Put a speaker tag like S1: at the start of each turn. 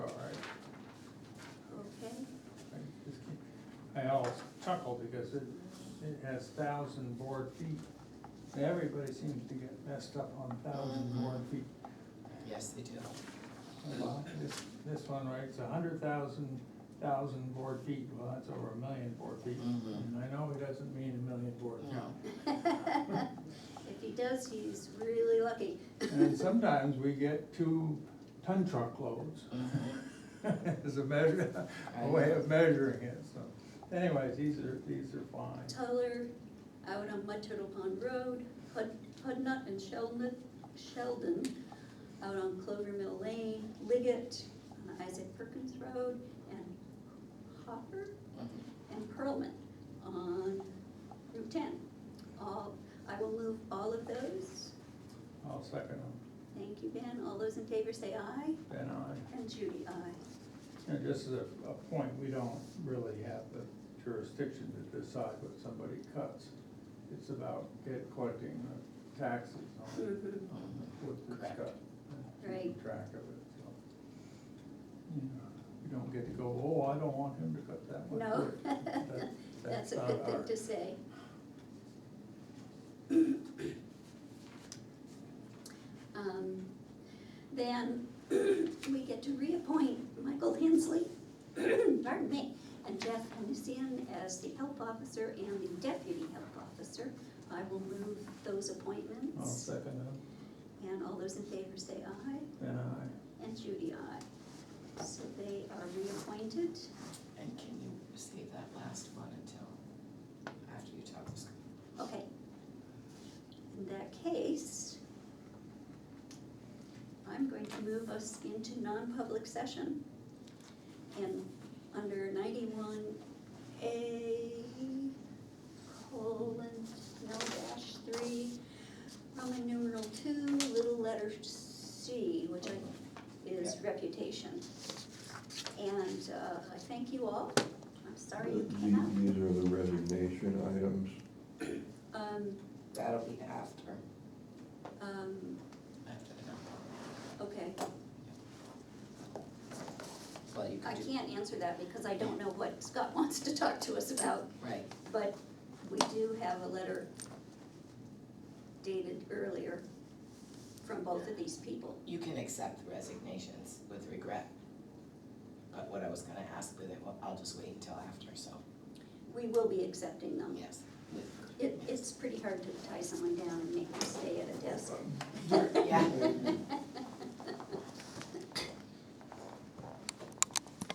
S1: Al chuckled because it, it has thousand board feet. Everybody seems to get messed up on thousand board feet.
S2: Yes, they do.
S1: Well, This, this one writes a hundred thousand, thousand board feet, well, that's over a million board feet.
S2: Mhm.
S1: And I know it doesn't mean a million board
S2: No.
S1: feet.
S3: If he does, he's really lucky.
S1: And sometimes we get two ton truck loads
S2: Mm-hmm.
S1: as a measure, a way of measuring it, so. Anyways, these are, these are fine.
S3: Tyler, out on Mud Turtle Pond Road, Hud- Hudnut and Sheldon, Sheldon, out on Clover Mill Lane, Liggett, on Isaac Perkins Road, and Hopper
S2: Mhm.
S3: and Pearlman on Route ten. All, I will move all of those.
S1: I'll second them.
S3: Thank you, Ben. All those in favor say aye,
S1: Ben, I,
S3: and Judy, aye.
S1: and just as a, a point, we don't really have the jurisdiction to decide what somebody cuts. It's about get collecting the taxes on
S3: Mhm.
S2: Mm-hmm.
S1: what it's
S2: Correct.
S1: cut. and keeping
S3: Right.
S1: Track of it, so. You know, You don't get to go, oh, I don't want him to cut that one.
S3: No,
S1: That-
S3: that's a
S1: not
S3: good thing
S1: our-
S3: to say. Um, Then we get to reappoint Michael Hensley, pardon me, and Jeff Hennessin as the health officer and the deputy health officer. I will move those
S1: I'll
S3: appointments.
S1: second them,
S3: And all those in favor say aye,
S1: Ben, I,
S3: and Judy, aye. So they are reappointed.
S2: And can you save that last one until after you talk to Scott?
S3: Okay. In that case, I'm going to move us into non-public session. And under ninety-one A colon, no dash three, Roman numeral two, little letter C, which I, is reputation. And, uh, I thank you all. I'm sorry you
S4: The-
S3: cannot.
S4: These are the resignation items.
S3: Um,
S2: That'll be after.
S3: um,
S2: After the number.
S3: Okay,
S2: Well, you
S3: I
S2: can do,
S3: can't answer that because I don't know what Scott wants to talk to us about,
S2: right,
S3: but we do have a letter dated earlier from both of these people.
S2: you can accept the resignations with regret. But what I was gonna ask with it, well, I'll just wait until after, so,
S3: We will be accepting them.
S2: yes. with-
S3: It, it's pretty hard to tie someone down and make them stay at a desk.
S2: Yeah.